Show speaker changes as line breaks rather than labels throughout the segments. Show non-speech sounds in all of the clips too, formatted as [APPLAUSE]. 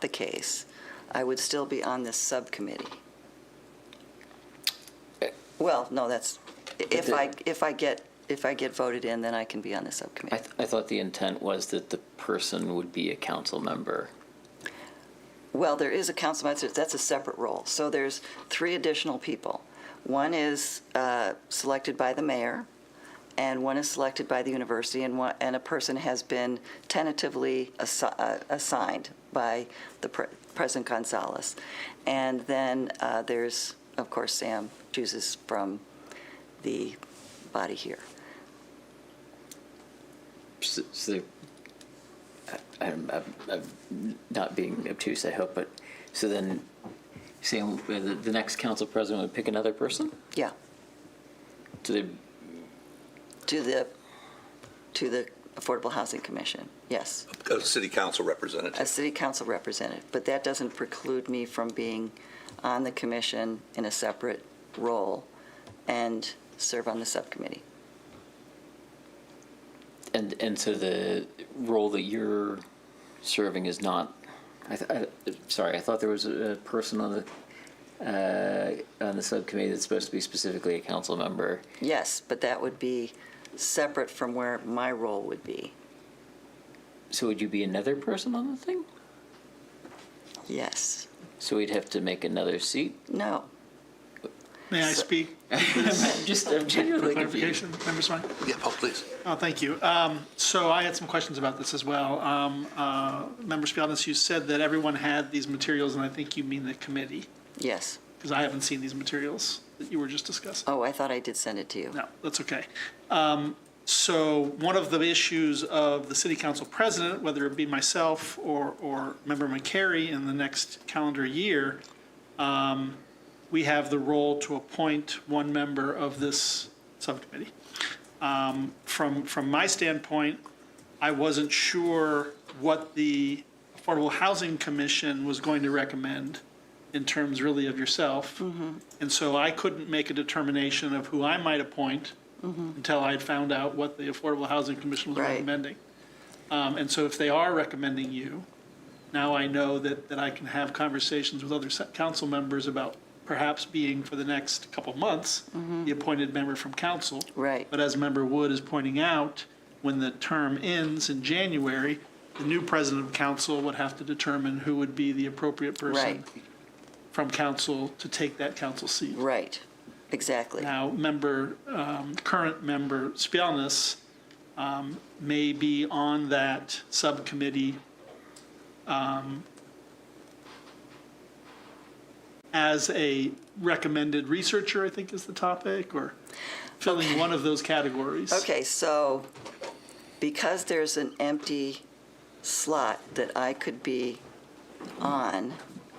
the case, I would still be on this subcommittee. Well, no, that's, if I, if I get, if I get voted in, then I can be on the
I,
subcommittee.
th- I thought the intent was that the person would be a council member.
Well, there is a council, member. that's a separate role. So there's three additional people. One is uh, selected by the mayor, and one is selected by the university, and one, and a person has been tentatively assi- uh, assigned by the pre- President Gonzalez. And then uh, there's, of course, Sam chooses from the body here.
S- So, I- I'm, I'm, I'm not being obtuse, I hope, but, so then, Sam, uh, the, the next council president would pick another person?
Yeah,
Do they,
to the, to the Affordable Housing Commission, yes.
a city council representative.
a city council representative, but that doesn't preclude me from being on the commission in a separate role and serve on the subcommittee.
and, and so the role that you're serving is not, I, th- I, sorry, I thought there was a a person on the, uh, on the subcommittee that's supposed to be specifically a council member.
Yes, but that would be separate from where my role would be.
So would you be another person on the thing?
Yes,
So we'd have to make another seat?
no,
May I speak
I'm just, I'm
for
genuinely confused.
clarification, Member Swank?
Yeah, oh, please.
Oh, thank you. Um, So I had some questions about this as well. Um, uh, Member Spielness, you said that everyone had these materials, and I think you mean the committee,
yes.
because I haven't seen these materials that you were just discussing.
Oh, I thought I did send it to you.
No, that's okay. Um, So one of the issues of the city council president, whether it be myself or, or Member McCary in the next calendar year, um, we have the role to appoint one member of this subcommittee. Um, From, from my standpoint, I wasn't sure what the Affordable Housing Commission was going to recommend in terms really of yourself. And so I couldn't make a determination of who I might appoint until I had found out what the Affordable Housing Commission was
Right.
recommending. Um, And so if they are recommending you, now I know that, that I can have conversations with other se- council members about perhaps being for the next couple of months, the appointed member from council.
Mm-hmm. Right.
But as Member Wood is pointing out, when the term ends in January, the new president of council would have to determine who would be the appropriate person
Right.
from council to take that council seat.
Right, exactly.
Now, member, um, current member Spielness um, may be on that subcommittee um, as a recommended researcher, I think is the topic, or filling one of those categories.
Okay, so because there's an empty slot that I could be on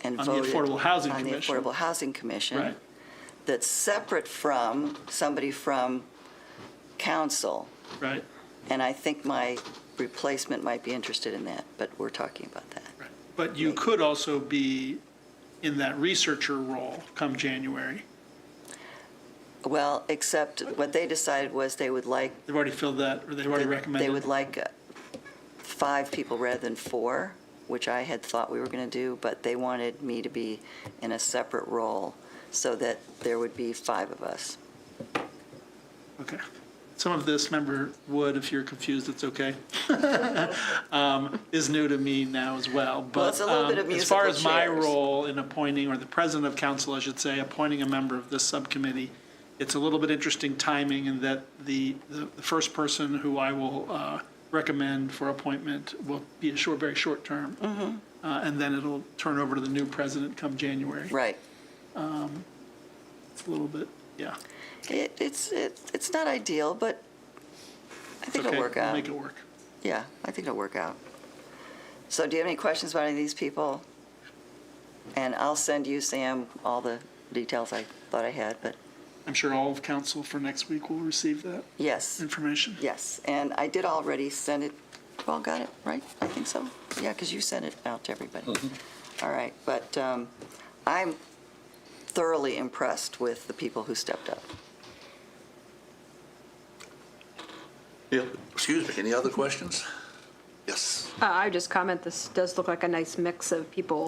and
On the
voted.
Affordable Housing
on the
Commission.
Affordable Housing Commission.
Right.
That's separate from somebody from council.
Right,
And I think my replacement might be interested in that, but we're talking about that.
right. But you could also be in that researcher role come January.
Well, except what they decided was they would like.
They've already filled that, or they've already recommended.
They would like uh, five people rather than four, which I had thought we were going to do, but they wanted me to be in a separate role so that there would be five of us.
Okay. Some of this, member Wood, if you're confused,
[LAUGHS]
it's okay, um, is new to me now as well. But
it's a little bit
um,
of
as far
musical
as my
chairs.
role in appointing, or the president of council, I should say, appointing a member of this subcommittee, it's a little bit interesting timing in that the, the the first person who I will uh, recommend for appointment will be a short, very short term.
Mm-hmm.
Uh, And then it'll turn over to the new president come January.
Right.
It's a little bit, yeah.
It, it's, it, it's not ideal, but I
It's
think it'll
okay.
work
We'll
out.
Make it work.
Yeah, I think it'll work out. So do you have any questions about any of these people? And I'll send you, Sam, all the details I thought I had, but
I'm sure all of council for next week will receive that.
yes,
information.
yes. And I did already send it, you all got it, right? I think so. Yeah, because you sent it out to everybody. All right, but um, I'm thoroughly impressed with the people who stepped up.
Excuse me, any other questions? Yes.
Uh, I would just comment, this does look like a nice mix of people